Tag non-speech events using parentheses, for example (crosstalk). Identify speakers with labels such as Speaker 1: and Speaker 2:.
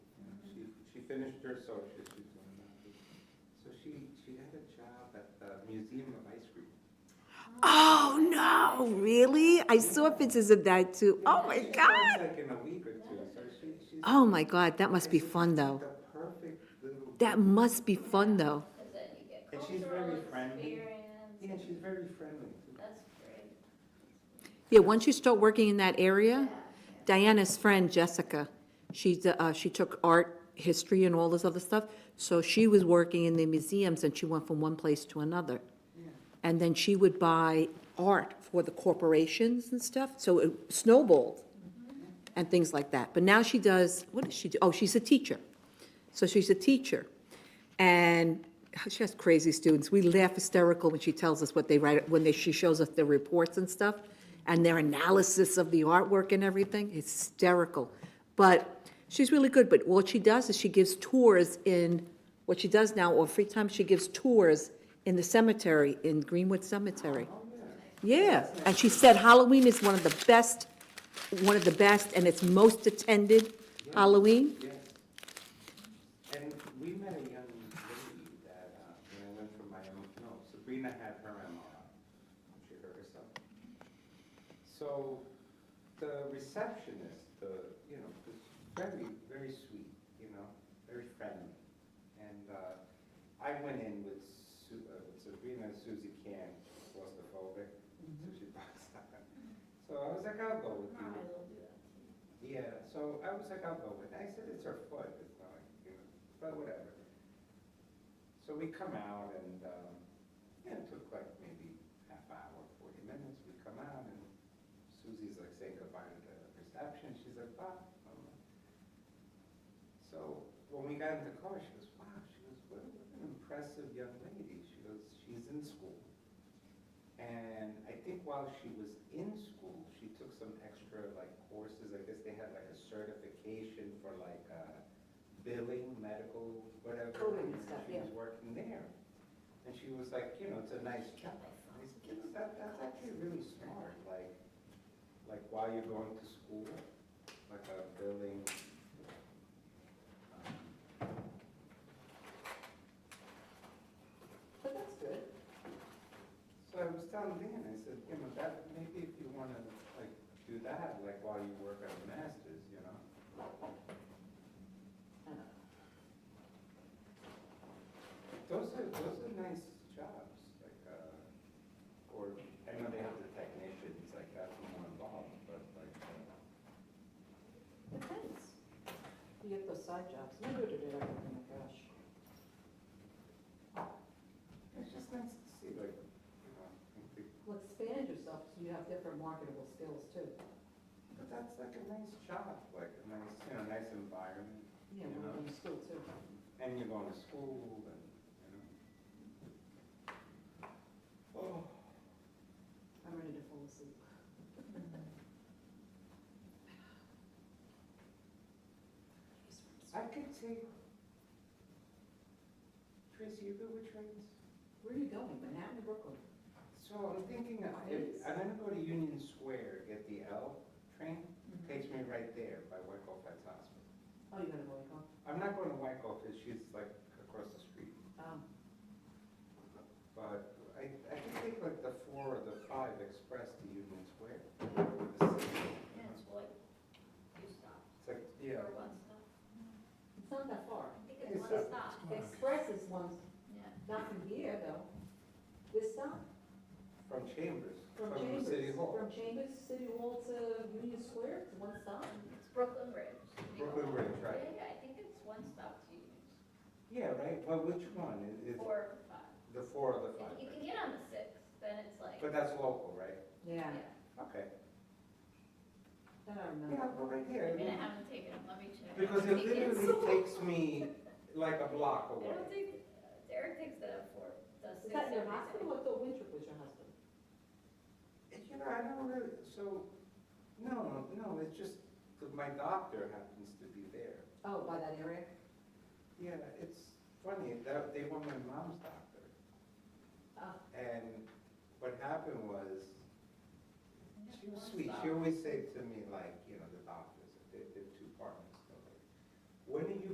Speaker 1: finished her associate's, she's going on. So she, she had a job at the Museum of Ice Cream.
Speaker 2: Oh, no, really? I saw pictures of that too. Oh, my
Speaker 1: She
Speaker 2: God.
Speaker 1: starts, Like in a week or two, so she, she's.
Speaker 2: Oh, my God, that must be fun, though.
Speaker 1: The perfect little.
Speaker 2: That must be fun, though.
Speaker 3: Because then you get
Speaker 1: And she's
Speaker 3: cultural
Speaker 1: very friendly. Yeah,
Speaker 3: experience.
Speaker 1: she's very friendly.
Speaker 3: That's great.
Speaker 2: Yeah, once you start working in that area, Diana's friend Jessica, she's, uh, she took art, history and all this other stuff. So she was working in the museums and she went from one place to another. And then she would buy art for the corporations and stuff, so it snowballed and things like that. But now she does, what does she do? Oh, she's a teacher. So she's a teacher. And she has crazy students. We laugh hysterical when she tells us what they write, when they, she shows us their reports and stuff, and their analysis of the artwork and everything, hysterical. But she's really good, but what she does is she gives tours in, what she does now, or free time, she gives tours in the cemetery, in Greenwood Cemetery. Yeah, and she said Halloween is one of the best, one of the best, and it's most attended Halloween.
Speaker 1: Yes. And we met a young lady that, uh, when I went for my, M- no, Sabrina had her MRI. She hurt herself. So the receptionist, the, you know, was very, very sweet, you know, very friendly. And uh, I went in with Su- uh, with Sabrina and Susie Can, claustrophobic, so she boxed out. (laughs) So I was like, I'll go with you.
Speaker 3: Probably will do that.
Speaker 1: Yeah, so I was like, I'll go with it. I said, it's her foot, it's not, like, you know, but whatever. So we come out and, um, yeah, it took like maybe half hour, forty minutes. We come out and Susie's like saying goodbye to the reception. She's like, bye. I'm like- So when we got in the car, she goes, wow, she goes, what what an impressive young lady. She goes, she's in school. And I think while she was in school, she took some extra like courses, I guess they had like a certification for like uh, billing, medical, whatever.
Speaker 2: Coding and stuff,
Speaker 1: She was working there. And she was like, you know, it's a nice job. I said, "You know, that, that's actually really smart, like, like while you're going to school, like a billing. um,
Speaker 4: But that's good.
Speaker 1: So I was telling Dan, I said, you know, that, maybe if you wanna, like, do that, like, while you work at a master's, you know? Those are, those are nice jobs, like, uh, or, I know they have the technicians, like, that's more involved, but like, uh,
Speaker 4: Depends. You get those side jobs. We would have did everything, oh gosh.
Speaker 1: it's just nice to see, like, you know, I think,
Speaker 4: Well, expand yourself so you have different marketable skills too.
Speaker 1: but that's like a nice job, like, a nice, you know, nice environment,
Speaker 4: You know,
Speaker 1: Yeah.
Speaker 4: from school too.
Speaker 1: and you're going to school, and, you know. Oh.
Speaker 4: I'm ready to fall asleep.
Speaker 1: I could take. Tracy, you go with trains?
Speaker 4: Where are you going? Manhattan to Brooklyn?
Speaker 1: So I'm thinking, of- if, I'm gonna go to Union Square, get the L train, takes me right there by Wyckoff Vets Hospital.
Speaker 4: Oh, you're gonna go, huh?
Speaker 1: I'm not going to Wyckoff, because she's like across the street,
Speaker 4: Um,
Speaker 1: but I, I could take like the four or the five express to Union Square. or the six.
Speaker 3: And it's like, two stops,
Speaker 1: It's like, yeah,
Speaker 3: or one stop.
Speaker 4: it's not that far.
Speaker 3: I
Speaker 1: It's
Speaker 3: think it's one
Speaker 1: a-
Speaker 3: stop,
Speaker 4: Express is one,
Speaker 3: yeah.
Speaker 4: not from here though. This stop,
Speaker 1: from Chambers,
Speaker 4: from
Speaker 1: from
Speaker 4: Chambers,
Speaker 1: City Hall,
Speaker 4: from Chambers, City Hall to Union Square, it's one stop.
Speaker 3: It's Brooklyn Bridge.
Speaker 1: Brooklyn Bridge,
Speaker 3: Yeah,
Speaker 1: right?
Speaker 3: I think it's one stop to use,
Speaker 1: Yeah, right, but which one? It- It's
Speaker 3: four or five.
Speaker 1: the four or the five,
Speaker 3: If you can
Speaker 1: right?
Speaker 3: get on the six, then it's like,
Speaker 1: But that's local, right?
Speaker 4: Yeah,
Speaker 3: yeah.
Speaker 1: Okay.
Speaker 4: that I
Speaker 1: Yeah,
Speaker 4: remember.
Speaker 1: but right here.
Speaker 3: I mean, I haven't taken them, let me check.
Speaker 1: Because
Speaker 3: I
Speaker 1: it
Speaker 3: think it's-
Speaker 1: (laughs) literally takes me like a block
Speaker 3: I
Speaker 1: away.
Speaker 3: don't think, uh, Derek takes the four, the
Speaker 4: Is
Speaker 3: six.
Speaker 4: that your
Speaker 3: every day.
Speaker 4: hospital or the Winthrop was your hospital?
Speaker 1: You know, I don't really, so, no, no, it's just, that my doctor happens to be there.
Speaker 4: Oh, by that area?
Speaker 1: Yeah, it's funny, that, they were my mom's doctor.
Speaker 4: Oh.
Speaker 1: And what happened was,
Speaker 3: Yeah,
Speaker 1: she was
Speaker 3: one
Speaker 1: sweet,
Speaker 3: stop.
Speaker 1: she always said to me like, you know, the doctors, they're, they're two partners. they're like, When are you